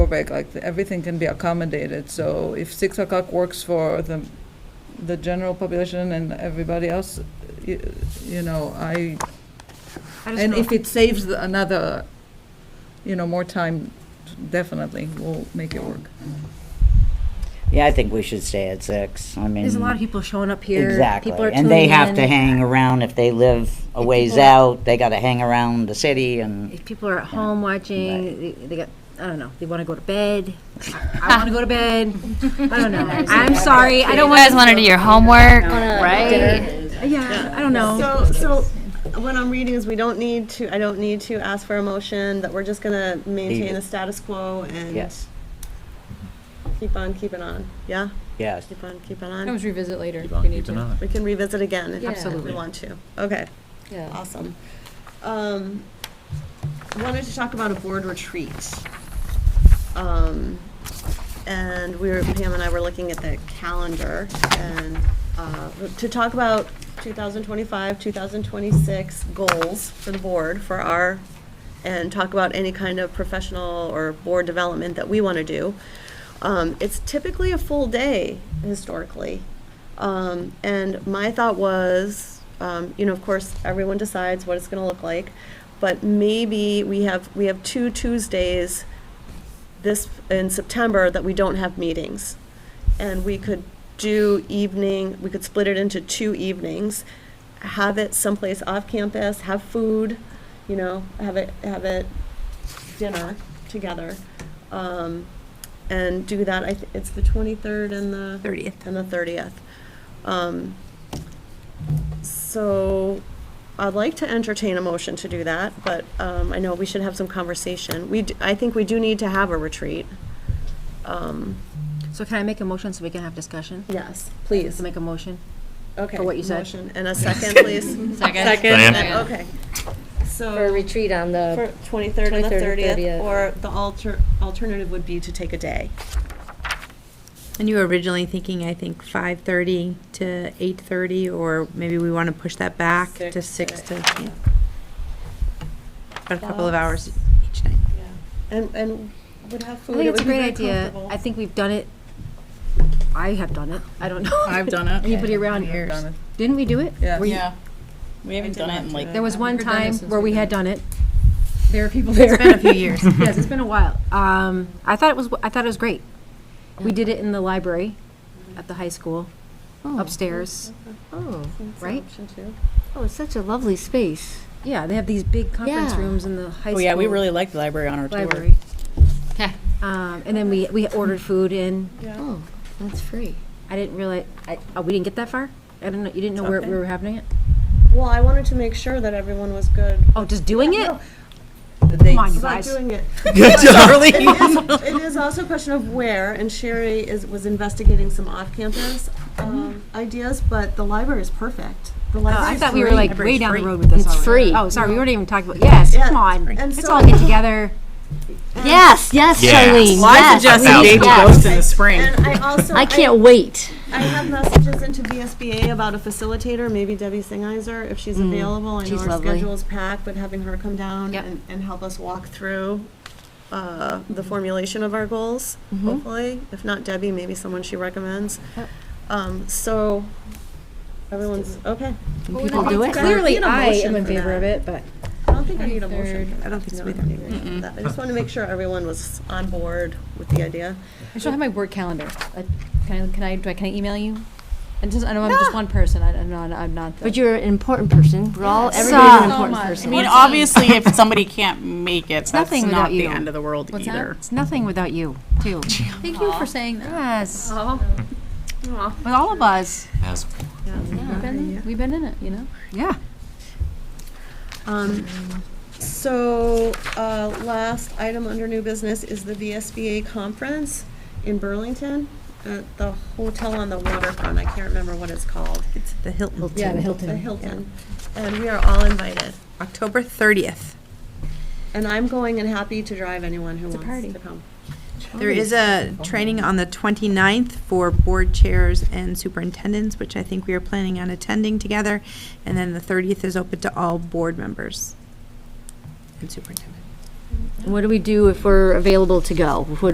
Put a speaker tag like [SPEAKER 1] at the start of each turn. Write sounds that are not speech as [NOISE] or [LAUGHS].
[SPEAKER 1] back, like, everything can be accommodated, so if six o'clock works for the, the general population and everybody else, you, you know, I,
[SPEAKER 2] I just
[SPEAKER 1] and
[SPEAKER 2] know-
[SPEAKER 1] if it saves the- another, you know, more time, definitely, we'll make it work.
[SPEAKER 3] Yeah, I think we should stay at six. I mean,
[SPEAKER 2] There's a lot of people showing up here.
[SPEAKER 3] Mm. exactly,
[SPEAKER 2] People are
[SPEAKER 3] and they
[SPEAKER 2] tuning
[SPEAKER 3] have
[SPEAKER 2] in.
[SPEAKER 3] to hang around if they live a
[SPEAKER 2] If
[SPEAKER 3] ways
[SPEAKER 2] people-
[SPEAKER 3] out. They got to hang around the city, and
[SPEAKER 2] If people are at home watching, they- they got, I don't know, they want to go to bed. I want to go to bed. I don't know. I'm sorry, I don't
[SPEAKER 4] You
[SPEAKER 2] want.
[SPEAKER 4] guys want to do your homework, right?
[SPEAKER 2] Yeah, I don't know.
[SPEAKER 5] So, so what I'm reading is we don't need to, I don't need to ask for a motion, that we're just gonna maintain
[SPEAKER 3] it.
[SPEAKER 5] a status quo and
[SPEAKER 3] yes,
[SPEAKER 5] keep on keeping on, yeah?
[SPEAKER 3] yes.
[SPEAKER 5] Keep on keeping
[SPEAKER 6] I
[SPEAKER 5] on.
[SPEAKER 6] always revisit later
[SPEAKER 7] Keep
[SPEAKER 6] if
[SPEAKER 7] on
[SPEAKER 6] we need
[SPEAKER 7] keeping
[SPEAKER 6] to.
[SPEAKER 5] [LAUGHS]
[SPEAKER 7] on.
[SPEAKER 5] We can revisit again if
[SPEAKER 2] Absolutely.
[SPEAKER 5] we want to. Okay,
[SPEAKER 6] Yeah.
[SPEAKER 5] awesome. Um, wanted to talk about a board retreat. Um, and we were, Pam and I were looking at the calendar and, uh, to talk about 2025, 2026 goals for the board, for our, and talk about any kind of professional or board development that we want to do. Um, it's typically a full day historically. Um, and my thought was, um, you know, of course, everyone decides what it's going to look like, but maybe we have, we have two Tuesdays this, in September, that we don't have meetings. And we could do evening, we could split it into two evenings, have it someplace off campus, have food, you know, have it, have it dinner together. Um, and do that, I, th- it's the twenty-third and the.
[SPEAKER 2] 30th.
[SPEAKER 5] And the thirtieth. Um, so I'd like to entertain a motion to do that, but, um, I know we should have some conversation. We, d- I think we do need to have a retreat. Um,
[SPEAKER 2] So can I make a motion so we can have discussion?
[SPEAKER 5] yes,
[SPEAKER 2] Just
[SPEAKER 5] please.
[SPEAKER 2] Make a motion.
[SPEAKER 5] Okay.
[SPEAKER 2] for what you said.
[SPEAKER 5] Motion And a second,
[SPEAKER 2] [LAUGHS]
[SPEAKER 5] please.
[SPEAKER 4] Second.
[SPEAKER 7] Diane?
[SPEAKER 5] Okay. So.
[SPEAKER 6] For a retreat on
[SPEAKER 5] For
[SPEAKER 6] the,
[SPEAKER 5] 23rd and the
[SPEAKER 6] 23rd and
[SPEAKER 5] 30th,
[SPEAKER 6] 30th.
[SPEAKER 5] or the alter, alternative would be to take a day.
[SPEAKER 8] And you were originally thinking, I think, five thirty to eight thirty, or maybe we want to push that back to
[SPEAKER 5] Six
[SPEAKER 8] six
[SPEAKER 5] to-
[SPEAKER 8] to, yeah. About a couple of hours each night.
[SPEAKER 5] And, and would have food.
[SPEAKER 2] I think
[SPEAKER 5] It
[SPEAKER 2] it's a
[SPEAKER 5] would be
[SPEAKER 2] great
[SPEAKER 5] very
[SPEAKER 2] idea.
[SPEAKER 5] comfortable.
[SPEAKER 2] I think we've done it. I have done it. I don't know.
[SPEAKER 9] I've done it.
[SPEAKER 2] [LAUGHS] Anybody around
[SPEAKER 1] I've
[SPEAKER 2] here?
[SPEAKER 1] done it.
[SPEAKER 2] Didn't we do it?
[SPEAKER 1] Yeah.
[SPEAKER 2] Were you-
[SPEAKER 9] Yeah. We haven't done it in like.
[SPEAKER 2] There was one
[SPEAKER 9] We've done it
[SPEAKER 2] time
[SPEAKER 9] since
[SPEAKER 2] where we
[SPEAKER 9] we've done
[SPEAKER 2] had
[SPEAKER 9] it.
[SPEAKER 2] done it. There are people there.
[SPEAKER 8] It's been a few years.
[SPEAKER 2] yes, it's been a while. Um, I thought it was. I thought it was great. We did it in the library, at the high school, upstairs.
[SPEAKER 6] oh,
[SPEAKER 2] Right?
[SPEAKER 5] Option two.
[SPEAKER 6] oh, it's such a lovely space.
[SPEAKER 2] Yeah, they have these big conference
[SPEAKER 6] Yeah.
[SPEAKER 2] rooms in the high
[SPEAKER 9] Oh,
[SPEAKER 2] school.
[SPEAKER 9] yeah, we really liked the library on our tour.
[SPEAKER 2] library.
[SPEAKER 4] Yeah.
[SPEAKER 2] Um, and then we we ordered food in.
[SPEAKER 6] Oh, that's free.
[SPEAKER 2] I didn't really. I, oh, we didn't get that far. I didn't know. You didn't know where we were having it.
[SPEAKER 5] Well, I wanted to make sure that everyone was good.
[SPEAKER 2] Oh, just doing it.
[SPEAKER 1] The dates.
[SPEAKER 2] Come on, you
[SPEAKER 5] About
[SPEAKER 2] guys.
[SPEAKER 5] doing it.
[SPEAKER 7] Darling.
[SPEAKER 5] It is also a question of where, and Sherry is, was investigating some off-campus um, ideas, but the library is perfect. The
[SPEAKER 2] Oh, I
[SPEAKER 5] library is
[SPEAKER 2] thought we were
[SPEAKER 5] free.
[SPEAKER 2] like way
[SPEAKER 8] Library's
[SPEAKER 2] down the
[SPEAKER 8] free.
[SPEAKER 2] road with this.
[SPEAKER 6] It's
[SPEAKER 2] already.
[SPEAKER 6] free.
[SPEAKER 2] Oh, sorry, we weren't even talking about. Yes,
[SPEAKER 5] Yeah,
[SPEAKER 2] come on.
[SPEAKER 5] and
[SPEAKER 2] Let's
[SPEAKER 5] so-
[SPEAKER 2] all get together.
[SPEAKER 6] Yes, yes,
[SPEAKER 7] Yes.
[SPEAKER 6] Charlene.
[SPEAKER 9] I
[SPEAKER 6] yes,
[SPEAKER 9] suggested
[SPEAKER 6] please,
[SPEAKER 9] Baby
[SPEAKER 6] yes.
[SPEAKER 9] Ghost in the spring.
[SPEAKER 5] And I also.
[SPEAKER 6] I can't wait.
[SPEAKER 5] I have messages into VSBA about a facilitator, maybe Debbie Singizer, if she's available. I know
[SPEAKER 6] she's
[SPEAKER 5] our
[SPEAKER 6] lovely.
[SPEAKER 5] schedule's packed, but having her come down
[SPEAKER 4] Yep.
[SPEAKER 5] and, and help us walk through uh, the formulation of our goals, hopefully. If not Debbie, maybe someone she recommends. Um, So, everyone's, okay.
[SPEAKER 2] People do it.
[SPEAKER 5] Guys, we
[SPEAKER 2] Clearly,
[SPEAKER 5] need a
[SPEAKER 2] I
[SPEAKER 5] motion
[SPEAKER 2] am in
[SPEAKER 5] for
[SPEAKER 2] favor
[SPEAKER 5] that.
[SPEAKER 2] of it, but
[SPEAKER 5] I don't think I need a motion. for that.
[SPEAKER 8] I don't think so
[SPEAKER 5] No, I
[SPEAKER 8] either.
[SPEAKER 5] need a motion for that. I just wanted to make sure everyone was on board with the idea.
[SPEAKER 6] I should have my work calendar. Uh, Can I, can I, do I, can I email you? And just, I know I'm just one person, I, I'm not, I'm not the.
[SPEAKER 4] But you're an important person. We're all, everybody's
[SPEAKER 6] everybody's an
[SPEAKER 4] an
[SPEAKER 6] So
[SPEAKER 4] important
[SPEAKER 6] important much.
[SPEAKER 4] person.
[SPEAKER 6] person.
[SPEAKER 9] I mean, obviously, if somebody can't make it, that's
[SPEAKER 2] nothing without
[SPEAKER 9] not the
[SPEAKER 2] you.
[SPEAKER 9] end of the world
[SPEAKER 2] What's that?
[SPEAKER 9] either.
[SPEAKER 2] It's nothing without you, too.
[SPEAKER 6] Thank you for saying that.
[SPEAKER 2] Yes. With all of us.
[SPEAKER 7] As
[SPEAKER 6] We've been, we've been in it, you know?
[SPEAKER 2] Yeah.
[SPEAKER 5] Um, So, uh, last item under new business is the VSBA conference in Burlington at the hotel on the waterfront. I can't remember what it's called. It's
[SPEAKER 8] The Hilton.
[SPEAKER 6] Yeah, the
[SPEAKER 5] the
[SPEAKER 6] Hilton.
[SPEAKER 5] Hilton. And we are all invited.
[SPEAKER 8] October thirtieth.
[SPEAKER 5] And I'm going and happy to drive anyone who
[SPEAKER 6] a
[SPEAKER 5] wants
[SPEAKER 6] party.
[SPEAKER 5] to come.
[SPEAKER 8] There is a training on the 29th for board chairs and superintendents, which I think we are planning on attending together. And then the thirtieth is open to all board members and superintendent.
[SPEAKER 6] What do we do if we're available to go? What